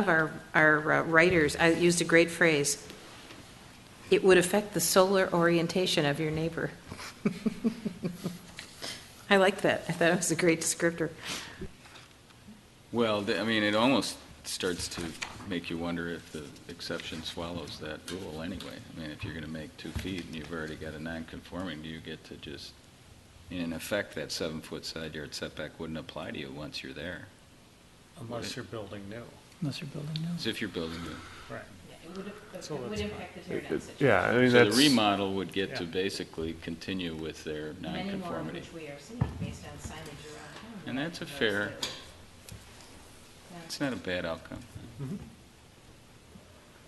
of our, our uh, writers, I used a great phrase, it would affect the solar orientation of your neighbor. I like that, I thought it was a great descriptor. Well, th- I mean, it almost starts to make you wonder if the exception swallows that rule anyway. I mean, if you're going to make two feet and you've already got a non-conforming, do you get to just, in effect, that seven-foot side yard setback wouldn't apply to you once you're there? Unless you're building new, Unless you're building As if you're building new. right. It would, So it would it's- impact the It- it- Yeah, I mean, So the that's. remodel would get to Yeah. basically continue with their non-conformity. we are seeing based on signage around town. And that's a fair- It's not a bad outcome.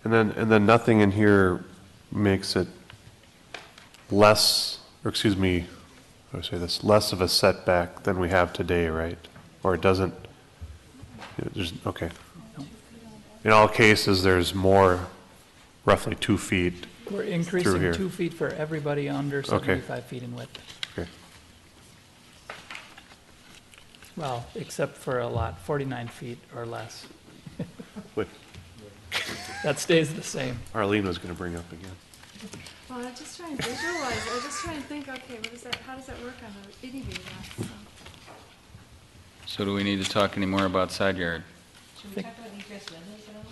And then, and then nothing in here makes it less, or excuse me, how do I say this, less of a setback than we have today, right? Or it doesn't, yeah, there's, okay. In all cases, there's more, roughly two feet. We're here. increasing two feet for everybody under seventy-five feet in width. Okay. Well, except for a lot forty-nine feet or less. What That stays the same. Arlene was going to bring up again. Well, I just try and visualize, I just try and think, okay, what is that, how does that work on a itty bitty lot? So, So do we need to talk any more about side yard? Should we talk about egress windows at all?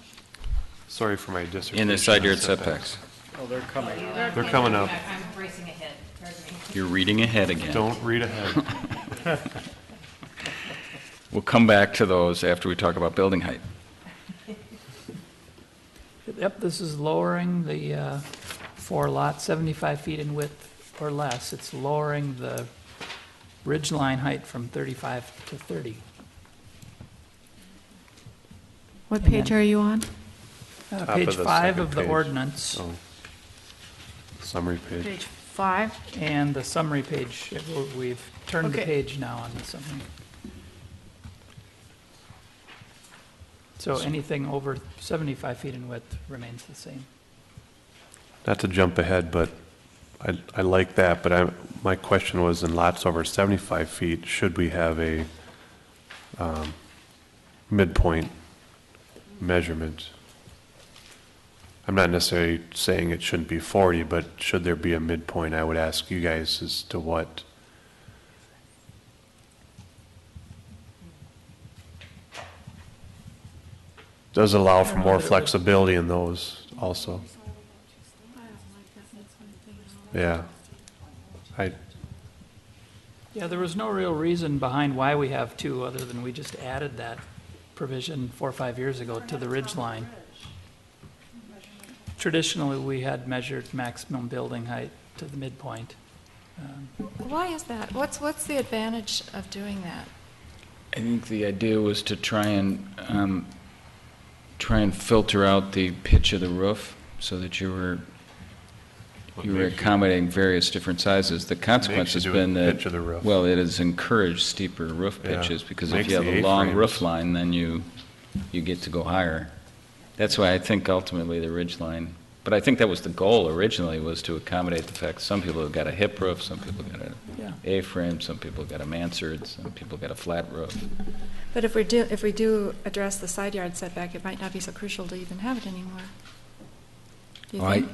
Sorry for my dissertation. In the side on yard setbacks. Oh, they're coming. They're coming up. I'm racing ahead, pardon me. You're reading ahead again. Don't read ahead. We'll come back to those after we talk about building height. Yep, this is lowering the, uh, four lot, seventy-five feet in width or less. It's lowering the ridge line height from thirty-five to thirty. What And page page then- are you on? Uh, Top Page of the five second of the page. ordinance. Oh. Summary page. Page five. And the summary page, it- we've turned the Okay. page now on the summary. So anything over 75 feet in width remains the same. Not to jump ahead, but I, I like that, but I, my question was in lots over 75 feet, should we have a um, midpoint measurement? I'm not necessarily saying it shouldn't be 40, but should there be a midpoint? I would ask you guys as to what, does allow for more flexibility in those also. Yeah. I, Yeah, there was no real reason behind why we have two, other than we just added that provision four or five years ago to the ridge line. Traditionally, we had measured maximum building height to the midpoint. Why is that? What's, what's the advantage of doing that? I think the idea was to try and, um, try and filter out the pitch of the roof so that you were, you were accommodating various different sizes. The consequence has Makes you do it been that. with the pitch of the roof. Well, it has encouraged steeper roof Yeah. pitches because if Makes you have a the long A-frames. roof line, then you, you get to go higher. That's why I think ultimately the ridge line, but I think that was the goal originally, was to accommodate the fact some people have got a hip roof, some people got a Yeah. A-frame, some people got a mansard, some people got a flat roof. But if we do, if we do address the side yard setback, it might not be so crucial to even have it anymore. Do you Well, I- think?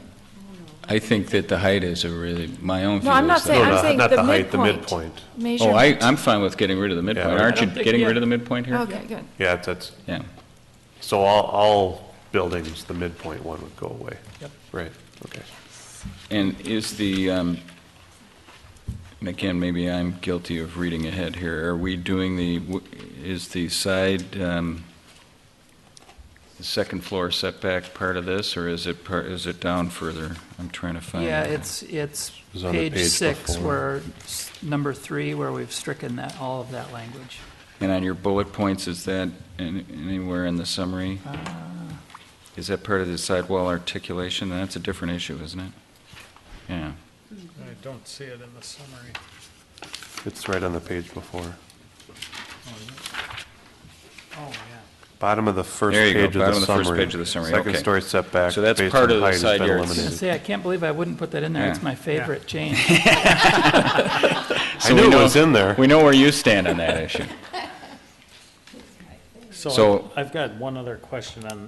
I think that the height is a really, my own view No, I'm not is saying, that. I'm no, saying not the the height, midpoint. the midpoint. Oh, I, Measurement. I'm fine with getting rid of the midpoint. Yeah. Aren't I you don't think- getting yeah. rid of the midpoint here? Okay, good. yeah, that's, Yeah. so all, all buildings, the midpoint one would go away. Yep. Right, okay. And is the, um, and again, maybe I'm guilty of reading ahead here. Are we doing the, w- is the side, um, the second floor setback part of this, or is it part, is it down further? I'm trying to find. Yeah, it. it's, it's was on the page page six, before. where, s- number three, where we've stricken that, all of that language. And on your bullet points, is that an- anywhere in the summary? Uh. Is that part of the sidewall articulation? That's a different issue, isn't it? Yeah. I don't see it in the summary. It's right on the page before. Oh, Bottom of the first There you go, page of the bottom of summary. the first page of the summary, Second okay. story setback. So that's based part on of the height has side been yard yeah. eliminated. Say, I can't believe I wouldn't put that in there. It's Yeah. my favorite change. I knew it was in there. We know where you stand on that issue. So- So I've got one other question on